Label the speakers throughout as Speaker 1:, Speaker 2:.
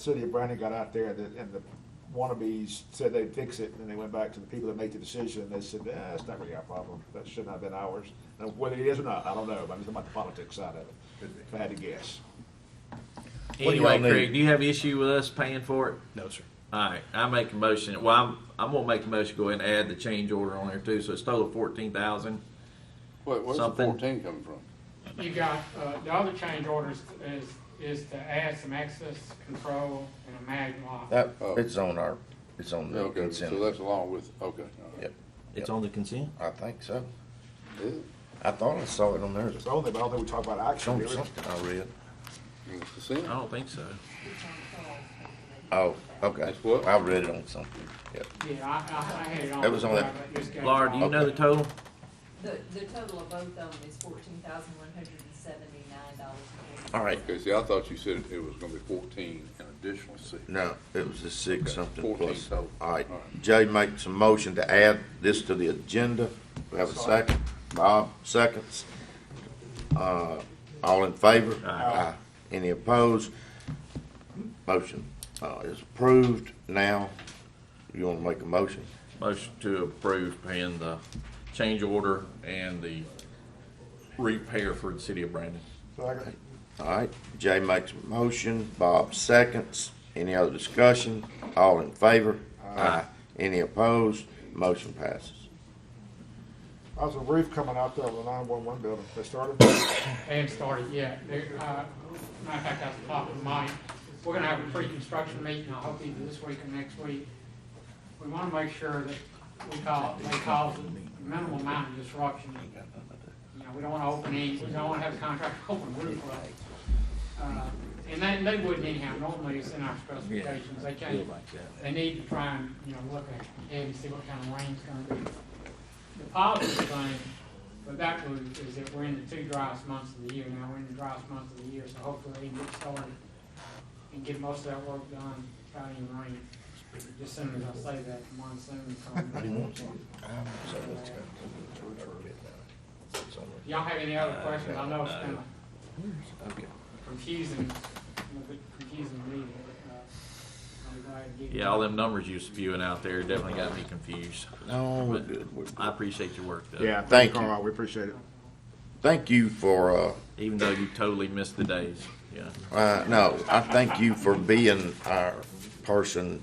Speaker 1: city of Brandon got out there and the, and the wannabes said they'd fix it, and they went back to the people that made the decision, and they said, eh, it's not really our problem, that should not have been ours. Now, whether it is or not, I don't know, but I'm just talking about the politics side of it, if I had to guess.
Speaker 2: What do y'all
Speaker 3: Anyway,
Speaker 2: need?
Speaker 3: Craig, do you have issue with us paying for it?
Speaker 2: No, sir.
Speaker 3: All right, I make a motion. Well, I'm, I'm gonna make a motion, go ahead and add the change order on there too, so it's total fourteen thousand.
Speaker 4: Wait, where's the
Speaker 3: Something.
Speaker 4: fourteen coming from?
Speaker 5: You got, uh, the other change orders is, is to add some access control and a mag lock.
Speaker 2: That,
Speaker 4: Oh.
Speaker 2: it's on our, it's on the
Speaker 4: Okay,
Speaker 2: consent.
Speaker 4: so that's along with, okay. all right.
Speaker 2: Yep,
Speaker 3: It's on the consent?
Speaker 2: I think so.
Speaker 4: Is it?
Speaker 2: I thought I saw it on there.
Speaker 1: It's only, but I don't think we talk about
Speaker 2: It's
Speaker 1: action,
Speaker 2: on
Speaker 1: really.
Speaker 2: something I read.
Speaker 4: In the
Speaker 3: I
Speaker 4: consent?
Speaker 3: don't think so.
Speaker 2: Oh, okay.
Speaker 4: That's what?
Speaker 2: I read it on something. Yep.
Speaker 5: Yeah, I, I, I had it on.
Speaker 2: That was on
Speaker 5: before,
Speaker 2: that-
Speaker 5: but just got it
Speaker 3: Laura, do you
Speaker 5: off.
Speaker 3: know the total?
Speaker 6: The, the total of both of them is fourteen thousand one hundred and seventy-nine dollars.
Speaker 2: All right.
Speaker 4: Okay, see, I thought you said it was gonna be fourteen and additional six.
Speaker 2: No, it was a six
Speaker 4: Okay,
Speaker 2: something
Speaker 4: 14
Speaker 2: plus. All
Speaker 4: total.
Speaker 2: right.
Speaker 4: All right.
Speaker 2: Jay makes a motion to add this to the agenda. We have a
Speaker 1: Sorry.
Speaker 2: second. Bob, seconds. Uh, all in favor? Aye. Any opposed? Motion, uh, is approved now. You wanna make a motion?
Speaker 3: Motion to approve paying the change order and the repair for the city of Brandon.
Speaker 1: So I got-
Speaker 2: All right, Jay makes a motion, Bob seconds. Any other discussion? All in favor? Aye. Any opposed? Motion passes.
Speaker 1: I was a roof coming out there on the nine-one-one building, they started,
Speaker 5: They haven't started yet. They, uh, matter of fact, I was talking to Mike. We're gonna have a pre-construction meeting, I hope either this week or next week. We wanna make sure that we call, they cause a minimal amount of disruption. You know, we don't wanna open any, we don't wanna have a contractor open roof leak. Uh, And they, they wouldn't anyhow, normally it's in our specifications, they can't, they need to try and, you know, look ahead and see what kind of rain's gonna be the positive thing with that was, is that we're in the two driest months of the year now, we're in the driest month of the year, so hopefully we can get started and get most of that work done, without any rain. Just soon as I say that, monsoon coming. Y'all have any other questions? I know it's kind of confusing, a little bit confusing to me, but, uh, I'm glad to get.
Speaker 3: Yeah, all them numbers you spewing out there definitely got me confused.
Speaker 2: No, we're good, we're
Speaker 3: I
Speaker 2: good.
Speaker 3: appreciate your work though.
Speaker 1: yeah,
Speaker 2: Thank
Speaker 1: thank
Speaker 2: you.
Speaker 1: you, Carl, we appreciate it.
Speaker 2: Thank you for, uh,
Speaker 3: Even though you totally missed the days, yeah.
Speaker 2: Uh, no, I thank you for being our person,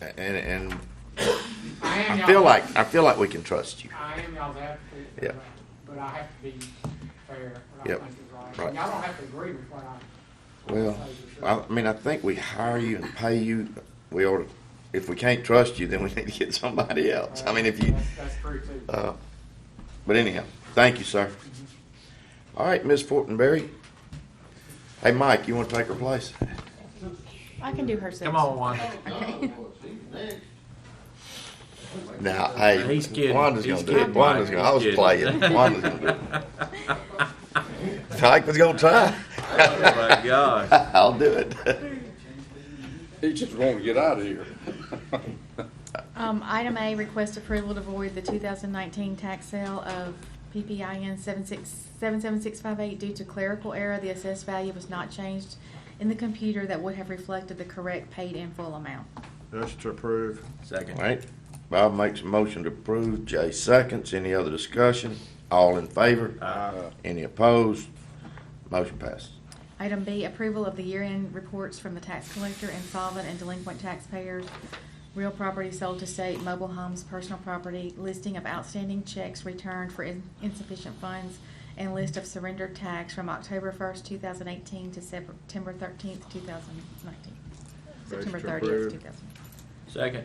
Speaker 2: and, and
Speaker 5: I am
Speaker 2: I
Speaker 5: y'all-
Speaker 2: feel like, I feel like we can trust you.
Speaker 5: I am y'all's advocate. uh,
Speaker 2: Yeah.
Speaker 5: But I have to be fair, what I
Speaker 2: Yep,
Speaker 5: think is right.
Speaker 2: right.
Speaker 5: And y'all don't have to agree with what I,
Speaker 2: Well, I, I mean, I think we hire you and pay you, we ought to, if we can't trust you, then we need to get somebody else. I mean, if you,
Speaker 5: that's, that's true too.
Speaker 2: uh, but anyhow, thank you, sir. All right, Ms. Fortenberry. Hey, Mike, you wanna take her place?
Speaker 7: I can do her section.
Speaker 3: Come on, Wanda.
Speaker 2: Now, hey.
Speaker 3: He's kidding.
Speaker 2: Wanda's
Speaker 3: He's
Speaker 2: gonna do
Speaker 3: kidding,
Speaker 2: it. Wanda's
Speaker 3: Mike.
Speaker 2: gonna, I was
Speaker 3: He's
Speaker 2: playing.
Speaker 3: kidding.
Speaker 2: Wanda's gonna do it. Mike was gonna try.
Speaker 3: Oh my gosh.
Speaker 2: I'll do it.
Speaker 4: He just wanted to get out of here.
Speaker 7: Um, item A, request approval to void the two thousand nineteen tax sale of PPIN seven six, seven seven six five eight due to clerical error. The assessed value was not changed in the computer that would have reflected the correct paid in full amount.
Speaker 1: Motion to approve.
Speaker 2: All
Speaker 3: Second.
Speaker 2: right. Bob makes a motion to approve. Jay seconds. Any other discussion? All in favor?
Speaker 8: Uh,
Speaker 3: Aye.
Speaker 2: Any opposed? Motion passes.
Speaker 7: Item B, approval of the year-end reports from the tax collector, insolvent and delinquent taxpayers, real property sold to state, mobile homes, personal property, listing of outstanding checks returned for in- insufficient funds, and list of surrendered tax from October first, two thousand eighteen to September thirteenth, two thousand nineteen. September
Speaker 1: Motion
Speaker 7: thirtieth,
Speaker 1: approved.
Speaker 7: two thousand.
Speaker 3: Second.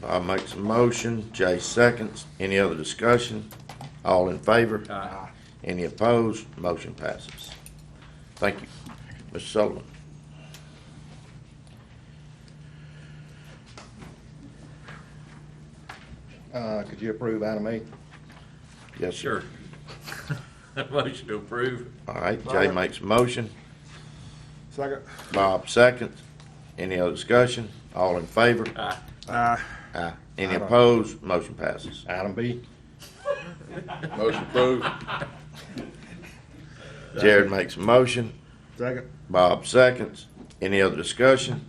Speaker 2: Bob makes a motion. Jay seconds. Any other discussion? All in favor?
Speaker 3: Aye.
Speaker 2: Any opposed? Motion passes. Thank you. Mr. Sullivan.
Speaker 8: Uh, could you approve item eight?
Speaker 2: Yes, sir.
Speaker 3: Sure. Motion to approve.
Speaker 2: All right, Jay makes a motion,
Speaker 1: Second.
Speaker 2: Bob seconds. Any other discussion? All in favor?
Speaker 3: Aye.
Speaker 1: Uh,
Speaker 2: Aye. Any opposed? Motion passes.
Speaker 8: Item B?
Speaker 4: Motion approved.
Speaker 2: Jared makes a motion,
Speaker 1: second.
Speaker 2: Bob seconds. Any other discussion?